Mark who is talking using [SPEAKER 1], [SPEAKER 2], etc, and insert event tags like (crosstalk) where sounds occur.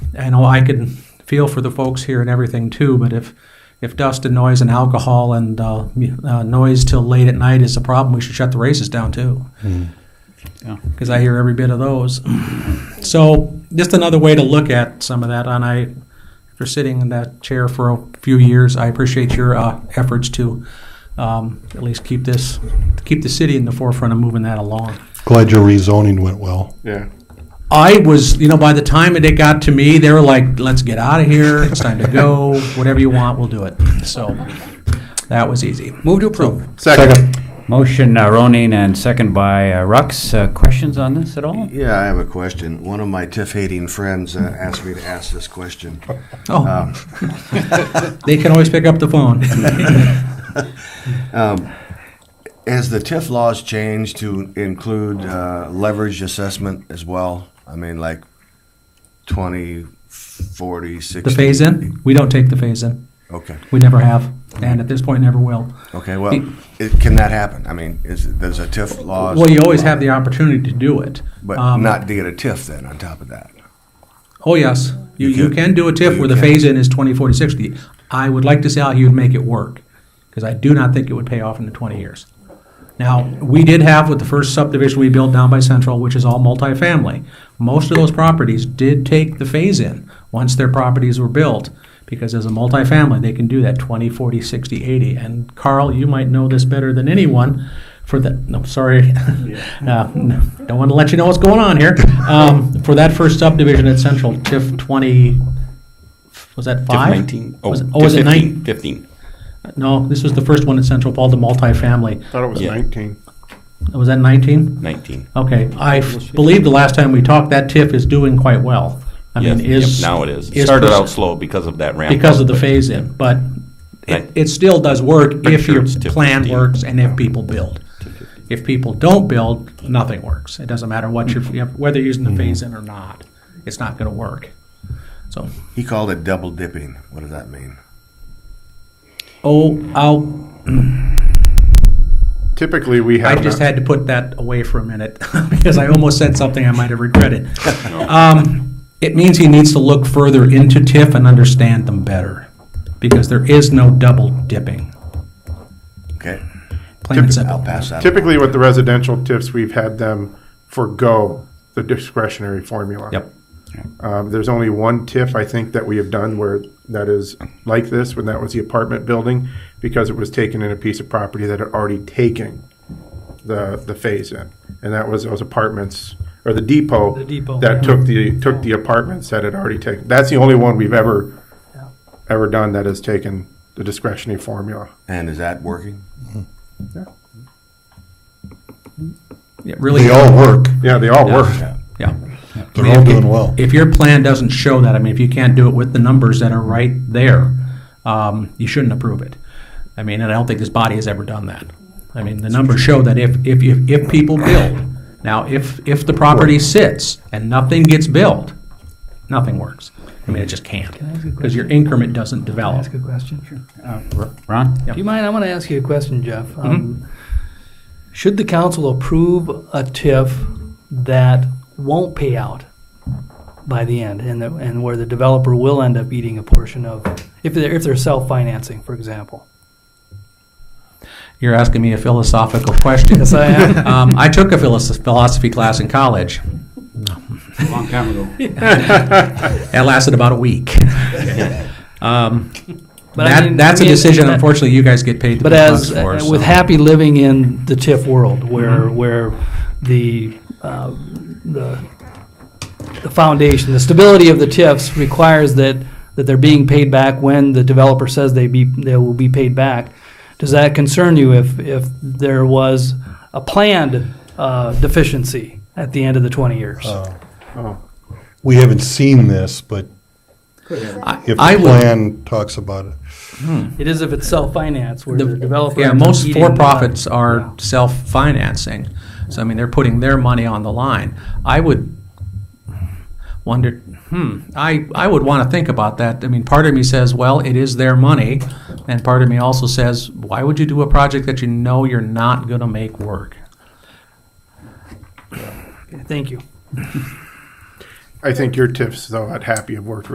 [SPEAKER 1] I know I could feel for the folks here and everything too, but if if dust and noise and alcohol and uh, mu- uh, noise till late at night is a problem, we should shut the races down too.
[SPEAKER 2] Yeah.
[SPEAKER 1] Because I hear every bit of those. so just another way to look at some of that. And I, after sitting in that chair for a few years, I appreciate your uh, efforts to um, at least keep this keep the city in the forefront of moving that along.
[SPEAKER 3] Glad your rezoning went well.
[SPEAKER 4] Yeah.
[SPEAKER 1] I was, you know, by the time it got to me, they were like, let's get out of here. It's time to go. Whatever you want, we'll do it. So that was easy.
[SPEAKER 2] Move to approve.
[SPEAKER 4] Second.
[SPEAKER 2] Motion uh, Ronin and second by uh, Rux. Uh, Questions on this at all?
[SPEAKER 5] Yeah, I have a question. One of my tiff-hating friends uh, asked me to ask this question.
[SPEAKER 1] Oh,
[SPEAKER 5] Um,
[SPEAKER 1] they can always pick up the phone.
[SPEAKER 5] Has the TIF laws changed to include uh, leverage assessment as well? I mean, like 20, 40, 60?
[SPEAKER 1] the phase in, we don't take the phase in.
[SPEAKER 5] Okay,
[SPEAKER 1] We never have. And at this point, never will.
[SPEAKER 5] okay, well, it- can that happen? I mean, is, there's a TIF laws?
[SPEAKER 1] Well, you always have the opportunity to do it.
[SPEAKER 5] But
[SPEAKER 1] Um,
[SPEAKER 5] not to get a TIF then on top of that?
[SPEAKER 1] Oh, yes. You,
[SPEAKER 5] You
[SPEAKER 1] you
[SPEAKER 5] can-
[SPEAKER 1] can do a TIF
[SPEAKER 5] you
[SPEAKER 1] where the
[SPEAKER 5] can.
[SPEAKER 1] phase in is 20, 40, 60. I would like to see how you'd make it work because I do not think it would pay off in the 20 years. Now, we did have with the first subdivision we built down by Central, which is all multifamily, most of those properties did take the phase in once their properties were built because as a multifamily, they can do that 20, 40, 60, 80. And Carl, you might know this better than anyone for the, no, sorry, (laughs) uh, no, don't want to let you know what's going on here. Um, for that first subdivision at Central, TIF 20, was that
[SPEAKER 6] TIF
[SPEAKER 1] five?
[SPEAKER 6] 19. Oh,
[SPEAKER 1] Was it-
[SPEAKER 6] TIF
[SPEAKER 1] oh, was it
[SPEAKER 6] 15,
[SPEAKER 1] nine?
[SPEAKER 6] 15.
[SPEAKER 1] No, this was the first one at Central Fall, the multifamily.
[SPEAKER 4] Thought it was
[SPEAKER 6] Yeah.
[SPEAKER 4] 19.
[SPEAKER 1] Was that 19?
[SPEAKER 6] 19.
[SPEAKER 1] Okay, I f- believe the last time we talked, that TIF is doing quite well. I mean,
[SPEAKER 6] Yes, yep,
[SPEAKER 1] is.
[SPEAKER 6] Now it is. It
[SPEAKER 1] is
[SPEAKER 6] started
[SPEAKER 1] pers-
[SPEAKER 6] out slow because of that ramp.
[SPEAKER 1] Because
[SPEAKER 6] up,
[SPEAKER 1] of the
[SPEAKER 6] but-
[SPEAKER 1] phase-in, but
[SPEAKER 6] Right.
[SPEAKER 1] it, it still does work
[SPEAKER 6] Pretty
[SPEAKER 1] if
[SPEAKER 6] sure
[SPEAKER 1] your
[SPEAKER 6] it's TIF
[SPEAKER 1] plan
[SPEAKER 6] 15.
[SPEAKER 1] works and if people build. If people don't build, nothing works. It doesn't matter what you're, you have- whether you're
[SPEAKER 6] Mm-hmm.
[SPEAKER 1] using the phase-in or not, it's not gonna work. So,
[SPEAKER 5] He called it double dipping. What does that mean?
[SPEAKER 1] oh, I'll,
[SPEAKER 4] Typically, we
[SPEAKER 1] I
[SPEAKER 4] have.
[SPEAKER 1] just
[SPEAKER 4] not-
[SPEAKER 1] had to put that away for a minute (laughs) because I almost said something I might have regretted. Um, it means he needs to look further into TIF and understand them better because there is no double dipping.
[SPEAKER 5] Okay,
[SPEAKER 1] Plain and
[SPEAKER 5] I'll
[SPEAKER 1] simple.
[SPEAKER 5] pass that.
[SPEAKER 4] Typically, with the residential TIFs, we've had them forego the discretionary formula.
[SPEAKER 1] Yep.
[SPEAKER 4] Um, there's only one TIF, I think, that we have done where that is like this, when that was the apartment building, because it was taken in a piece of property that had already taken the, the phase in. And that was those apartments, or the depot.
[SPEAKER 7] The depot. Mm-hmm.
[SPEAKER 4] That took the, took the apartments that had already taken. That's the only one we've ever, ever done that has taken the discretionary formula.
[SPEAKER 5] And is that working?
[SPEAKER 1] It really,
[SPEAKER 3] They all work.
[SPEAKER 4] Yeah, they all work.
[SPEAKER 1] yeah.
[SPEAKER 3] They're all doing well.
[SPEAKER 1] If your plan doesn't show that, I mean, if you can't do it with the numbers that are right there, um, you shouldn't approve it. I mean, and I don't think this body has ever done that. I mean, the numbers show that if, if, if, if people build, now, if, if the property sits and nothing gets built, nothing works. I mean, it just can't,
[SPEAKER 7] I ask a
[SPEAKER 1] because your
[SPEAKER 7] question?
[SPEAKER 1] increment doesn't
[SPEAKER 7] Can I
[SPEAKER 1] develop.
[SPEAKER 7] ask a question? Sure.
[SPEAKER 2] Uh, R- Ron?
[SPEAKER 1] Yeah.
[SPEAKER 7] Do you mind? I want to ask you a question, Jeff. Um, Should the council approve a TIF that won't pay out by the end, and the, and where the developer will end up eating a portion of, if they're if they're self financing, for example?
[SPEAKER 1] You're asking me a philosophical question.
[SPEAKER 7] (laughs) Yes, I am.
[SPEAKER 1] Um, I took a philosoph- philosophy class in college.
[SPEAKER 2] Long time ago.
[SPEAKER 4] (laughs)
[SPEAKER 1] That lasted about a week. Um,
[SPEAKER 7] But I
[SPEAKER 1] that,
[SPEAKER 7] mean-
[SPEAKER 1] that's
[SPEAKER 7] I mean,
[SPEAKER 1] a decision,
[SPEAKER 7] that-
[SPEAKER 1] unfortunately, you guys get paid the
[SPEAKER 7] But
[SPEAKER 1] big
[SPEAKER 7] as
[SPEAKER 1] bucks for.
[SPEAKER 7] uh, with
[SPEAKER 1] so- Mm-hmm.
[SPEAKER 7] happy living in the TIF world, where where the uh, the the foundation, the stability of the TIFs requires that that they're being paid back when the developer says they be they will be paid back. Does that concern you if if there was a planned uh, deficiency at the end of the twenty years?
[SPEAKER 3] Oh. Uh, We haven't seen this, but if the
[SPEAKER 1] I would-
[SPEAKER 3] plan talks about it.
[SPEAKER 7] it is if it's self finance where the,
[SPEAKER 1] the-
[SPEAKER 7] developer
[SPEAKER 1] yeah,
[SPEAKER 7] ends up
[SPEAKER 1] most
[SPEAKER 7] eating uh, the-
[SPEAKER 1] for-profits are
[SPEAKER 7] Yeah.
[SPEAKER 1] self-financing. So, I mean, they're putting their money on the line. I would wonder, hmm, I, I would want to think about that. I mean, part of me says, well, it is their money, and part of me also says, why would you do a project that you know you're not going to make work?
[SPEAKER 7] Thank you.
[SPEAKER 4] I think your TIFs, though, I'd happy have worked